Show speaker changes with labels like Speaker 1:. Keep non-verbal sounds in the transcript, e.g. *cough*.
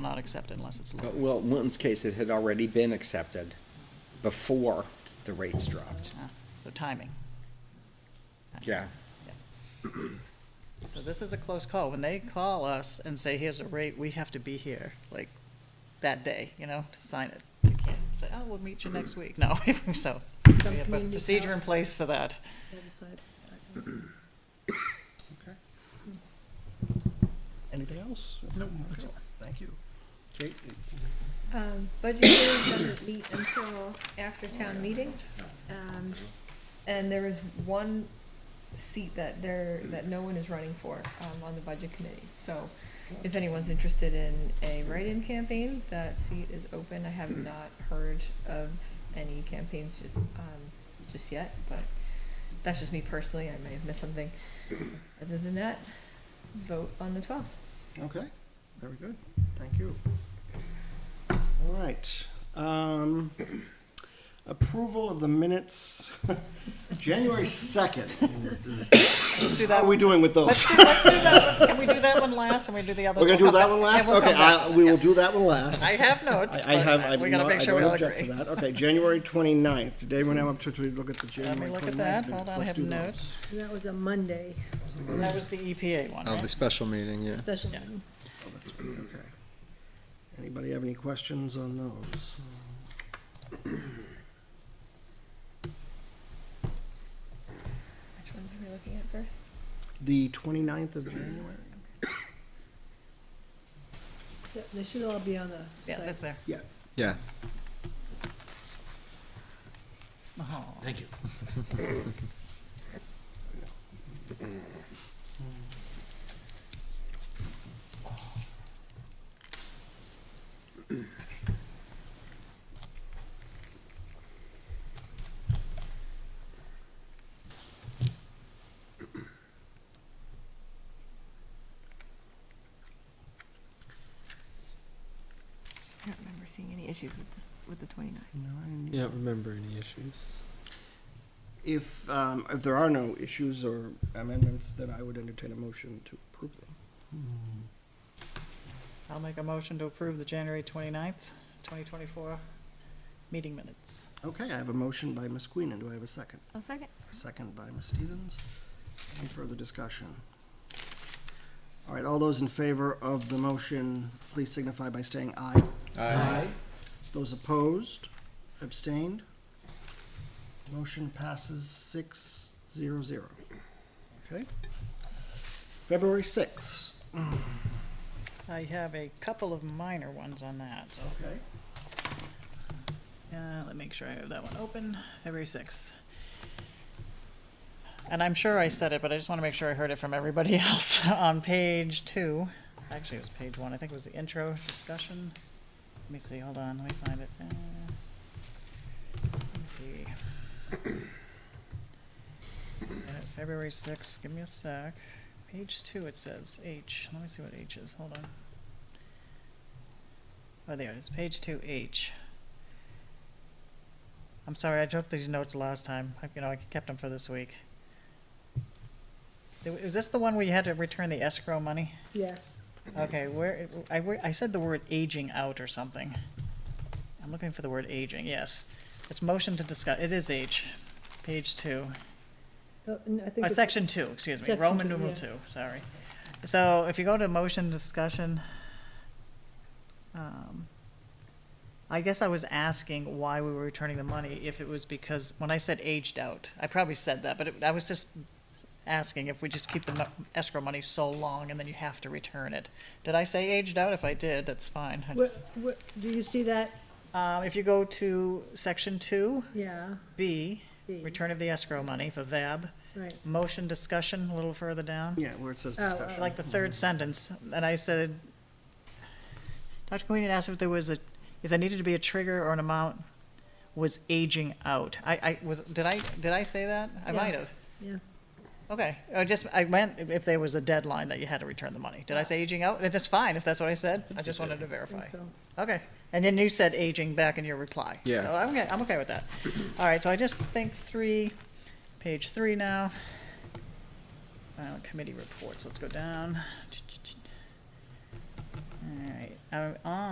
Speaker 1: not accepted unless it's
Speaker 2: Uh,
Speaker 1: low.
Speaker 2: Well, in Winton's case, it had already been accepted before the rates dropped.
Speaker 1: Ah, So timing.
Speaker 2: Yeah.
Speaker 1: So this is a close call. When they call us and say, here's a rate, we have to be here, like, that day, you know, to sign it. You can't say, oh, we'll meet you next week. *laughs* No, so we have a
Speaker 3: community
Speaker 1: procedure in place for that.
Speaker 4: Anything else? No. Thank you. Kate,
Speaker 3: Um, budget hearing doesn't meet until after town meeting. Um, and there is one seat that there, that no one is running for, um, on the budget committee. So if anyone's interested in a write-in campaign, that seat is open. I have not heard of any campaigns just, um, just yet, but that's just me personally. I may have missed something. Other than that, vote on the twelfth.
Speaker 4: okay, very good, thank you. All right, um, approval of the minutes, *laughs* January second.
Speaker 1: Let's do
Speaker 4: How
Speaker 1: that.
Speaker 4: are we doing with those?
Speaker 1: Let's do, *laughs* let's do that. one. Can we do that one last and we do the other?
Speaker 4: We're gonna do that one last? Okay, I, we will do that one last.
Speaker 1: I have notes,
Speaker 4: I I have, I
Speaker 1: but we
Speaker 4: do
Speaker 1: gotta
Speaker 4: not,
Speaker 1: make
Speaker 4: I
Speaker 1: sure we
Speaker 4: don't
Speaker 1: all
Speaker 4: object to
Speaker 1: agree.
Speaker 4: that. Okay, January twenty-ninth, today we're now up to, to look at the
Speaker 1: Let me
Speaker 4: January
Speaker 1: look at
Speaker 4: twenty-ninth
Speaker 1: that.
Speaker 4: minutes.
Speaker 1: Hold on, I
Speaker 4: Let's
Speaker 1: have
Speaker 4: do those.
Speaker 1: notes.
Speaker 5: That was a Monday
Speaker 1: That was the EPA one,
Speaker 2: Oh,
Speaker 1: right?
Speaker 2: the special meeting, yeah.
Speaker 5: special
Speaker 1: Yeah.
Speaker 5: meeting.
Speaker 4: Oh, that's pretty okay. Anybody have any questions on those?
Speaker 3: Which ones are we looking at first?
Speaker 4: The twenty-ninth of January?
Speaker 5: Yeah, They should all be on the
Speaker 1: Yeah,
Speaker 5: site.
Speaker 1: that's there.
Speaker 4: Yeah,
Speaker 2: Yeah.
Speaker 1: Oh.
Speaker 4: thank you.
Speaker 3: I don't remember seeing any issues with this, with the 29th.
Speaker 6: Yeah, don't remember any issues.
Speaker 4: If, um, if there are no issues or amendments, then I would entertain a motion to approve them.
Speaker 1: I'll make a motion to approve the January 29th, 2024 meeting minutes.
Speaker 4: Okay, I have a motion by Ms. Queenan. Do I have a second?
Speaker 3: Oh, second.
Speaker 4: A Second by Ms. Stevens. Any further discussion? All right, all those in favor of the motion, please signify by saying aye. Aye. Those opposed, abstained? Motion passes six zero zero. Okay? February sixth.
Speaker 1: I have a couple of minor ones on that.
Speaker 4: Okay.
Speaker 1: Uh, let me make sure I have that one open, February 6th. And I'm sure I said it, but I just want to make sure I heard it from everybody *laughs* else. On page two, actually it was page one, I think it was the intro discussion. Let me see, hold on, let me find it. Uh, Let me see. *coughs* Uh, February 6th, give me a sec. Page two, it says H. Let me see what H is, hold on. Oh, there it is, page two, H. I'm sorry, I took these notes last time. I- You know, I kept them for this week. There- Is this the one where you had to return the escrow money?
Speaker 5: Yes.
Speaker 1: Okay, where, I, where- I said the word aging out or something. I'm looking for the word aging, yes. It's motion to discuss, it is H, page two.
Speaker 5: Oh, and I think
Speaker 1: Uh,
Speaker 5: it's-
Speaker 1: section two, excuse me,
Speaker 5: Section
Speaker 1: Roman
Speaker 5: two,
Speaker 1: numeral
Speaker 5: yeah.
Speaker 1: two, sorry. So if you go to motion discussion, um, I guess I was asking why we were returning the money, if it was because, when I said aged out, I probably said that, but it- I was just asking if we just keep the mo- escrow money so long and then you have to return it. Did I say aged out? If I did, that's fine. I
Speaker 5: Where-
Speaker 1: just-
Speaker 5: where- Do you see that?
Speaker 1: Um, if you go to section two,
Speaker 5: Yeah.
Speaker 1: B,
Speaker 5: B,
Speaker 1: return of the escrow money for VAB,
Speaker 5: Right.
Speaker 1: motion discussion, a little further down.
Speaker 4: Yeah, where it says
Speaker 5: Oh, oh.
Speaker 4: discussion.
Speaker 1: Uh,
Speaker 4: Mhm.
Speaker 1: like the third sentence, and I said, Dr. Queen had asked if there was a, if there needed to be a trigger or an amount was aging out. I, I, was, did I, did I say that? I
Speaker 5: Yeah.
Speaker 1: might have.
Speaker 5: Yeah.
Speaker 1: Okay, I just, I meant if- if there was a deadline that you had to return the money. Did I say aging out? That's fine, if that's what I said. I just wanted to
Speaker 5: I think
Speaker 1: verify.
Speaker 5: so.
Speaker 1: Okay, and then you said aging back in your reply.
Speaker 2: Yeah.
Speaker 1: So I'm, okay- I'm okay with that. All right, so I just think three, page three now. Uh, committee reports, let's go down. All right, uh, on